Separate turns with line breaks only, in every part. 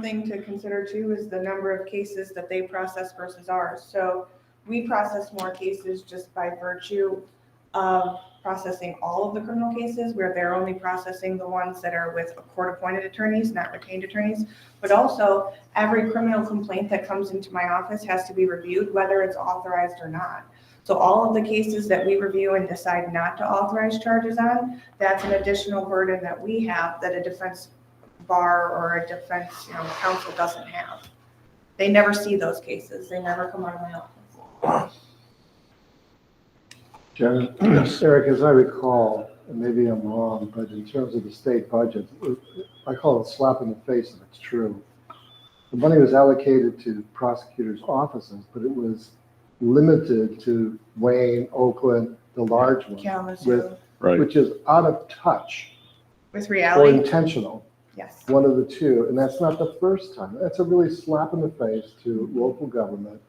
thing to consider too is the number of cases that they process versus ours. So we process more cases just by virtue of processing all of the criminal cases, where they're only processing the ones that are with court-appointed attorneys, not retained attorneys. But also, every criminal complaint that comes into my office has to be reviewed, whether it's authorized or not. So all of the cases that we review and decide not to authorize charges on, that's an additional burden that we have that a defense bar or a defense, you know, counsel doesn't have. They never see those cases. They never come out of my office.
Janet?
Yes.
Eric, as I recall, and maybe I'm wrong, but in terms of the state budget, I call it a slap in the face if it's true. The money was allocated to prosecutors' offices, but it was limited to Wayne, Oakland, the large ones,
Kalamazoo,
Right.
which is out of touch
with
or
reality,
intentional.
yes.
one of the two, and that's not the first time. That's a really slap in the face to local government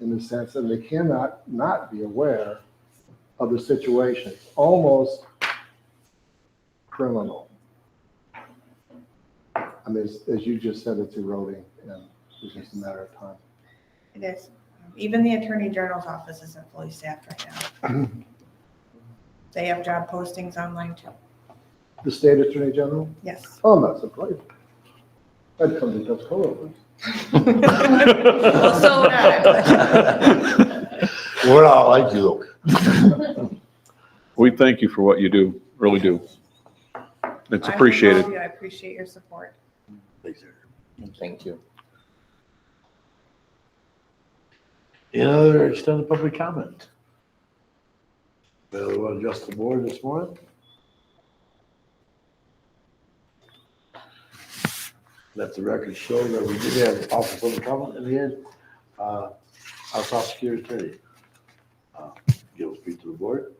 in the sense that they cannot not be aware of the situation. It's Almost criminal. I mean, as, as you just said, it's eroding, and it's just a matter of time.
It is. Even the Attorney General's office isn't fully staffed right now. They have job postings online too.
The state attorney general?
Yes.
Oh, I'm not surprised. I'd come to Tuscola.
Well, so would I.
We're all like you.
We thank you for what you do, really do. It's
I
appreciated.
love you. I appreciate your support.
Thank you. Any other extended public comment? Anyone want to adjust the board this morning? Let the record show that we did have office of comment in the end. Uh, Our prosecutor attorney. uh, Give a speech to the board.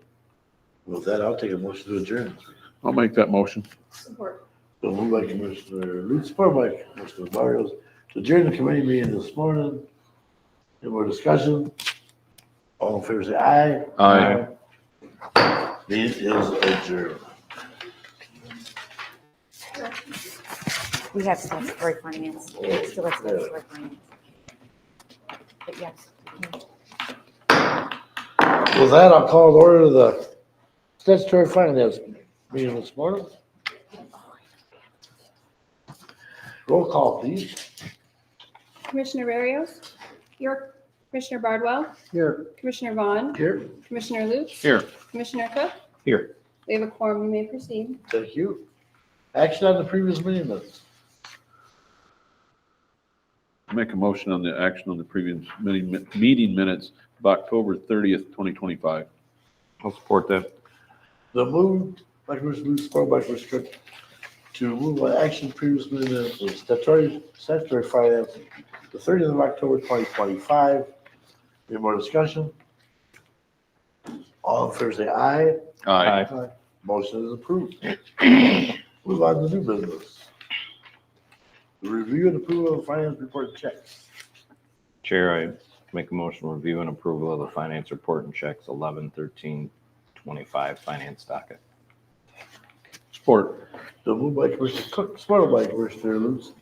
With that, I'll take a motion to adjourn.
I'll make that motion.
Support.
So moved by Commissioner Lutz, supported by Commissioner Barrios, to adjourn the committee meeting this morning. Any more discussion? All in favor, say aye.
Aye.
Meeting is adjourned.
We have statutory finance, it's still a statutory finance. But yes,
With that, I'll call to order the statutory finance meeting this morning. Roll call, please.
Commissioner Barrios? Here. Commissioner Bardwell?
Here,
Commissioner Vaughn?
Here.
Commissioner Luke?
Here.
Commissioner Cook?
Here.
We have a quorum, you may proceed.
Thank you. Action on the previous meeting minutes.
Make a motion on the action on the previous meeting meeting minutes of October 30th, 2025. I'll support that.
The move, by Commissioner Lutz, supported by Commissioner Cook, to remove by action previously minutes of statutory, statutory finance, the thirtieth of October, twenty twenty-five. Any more discussion? All in favor, say aye.
Aye.
Motion is approved. Move on to new business. The Review and approval of finance report checks.
Chair, I make a motion to review and approval of the finance report and checks 11, 13, 25 finance docket.
Support.
The move by Commissioner Cook, supported by Commissioner Lutz,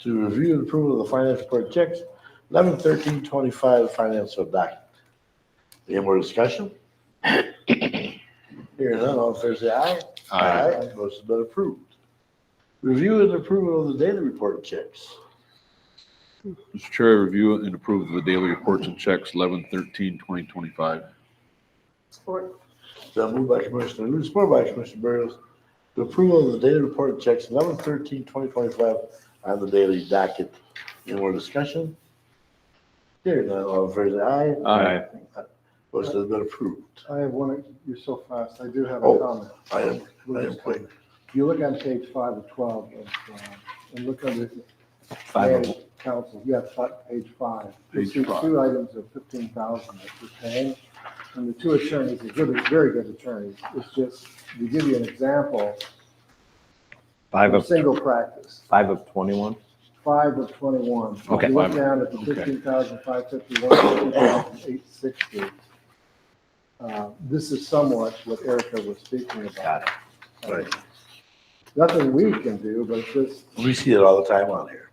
to review and approve of the finance report checks, eleven thirteen twenty-five financial document. Any more discussion? Hearing none, all in favor say aye. Motion's been approved. Review and approval of the daily report checks.
Mr. Chair, I review and approve the daily reports and checks 11/13/2025.
Support.
So moved by Commissioner Lutz, supported by Commissioner Barrios, to approval of the daily report checks, eleven thirteen twenty twenty-five on the daily docket. Any more discussion? Hearing none, all in favor say aye.
Aye.
Motion has been approved.
I have one, you're so fast, I do have a
Oh.
comment.
I am, I am quick.
If you look on page five of twelve, of, uh, and look under
Five of
Mayor's Council, yeah, fi- page five. You
Page
see
five.
Two items of fifteen thousand that you're paying, and the two attorneys are good, very good attorneys. It's just, to give you an example,
Five
a
of,
single practice,
five of 21?
five of twenty-one. If
Okay.
You look down at the
Okay.
fifteen thousand five fifty-one, two thousand eight sixty. uh, This is somewhat what Erica was speaking about.
Got
Right.
Nothing we can do, but just
We see it all the time on here.